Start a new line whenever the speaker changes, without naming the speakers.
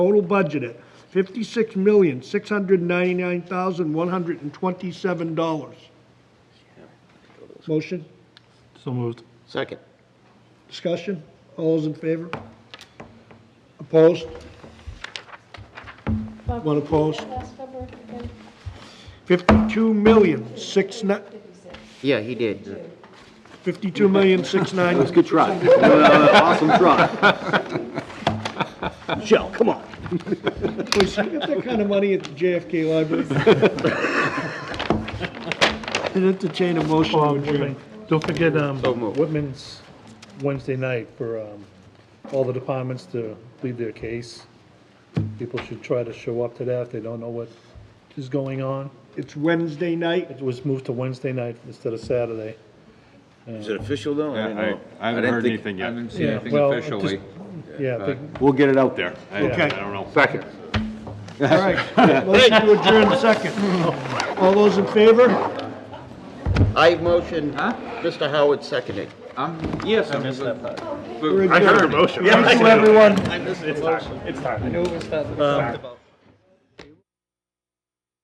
Total budget at fifty-six million, six hundred ninety-nine thousand, one hundred and twenty-seven dollars. Motion,
So moved.
Second.
discussion, all those in favor? Opposed?
Bob,
One
can you read
opposed.
that Last number again?
Fifty-two million, six ni-
Yeah, he did.
fifty-two million, six nine,
Good try. Awesome try.
Michelle, come on.
please, you get that kind of money at the JFK Library? And entertain a motion to
Um,
adjourn.
Don't forget, um,
So moved.
Whitman's Wednesday night for, um, all the departments to plead their case. People should try to show up to that if they don't know what is going on.
It's Wednesday night,
It was moved to Wednesday night instead of Saturday.
Is it official though? I
I,
didn't
I-
know.
I haven't
didn't
heard
think-
anything
I
yet.
haven't seen
Yeah,
anything
well,
officially. Uh,
just- Yeah, big-
We'll get it out there. I-
Okay.
I don't know.
Second.
all right. Motion to adjourn second. All those in favor?
I motion, Mr. Howard seconded.
I'm, yes, I missed that part.
I heard a motion. Thank you, everyone.
I missed the motion.
I knew it was that.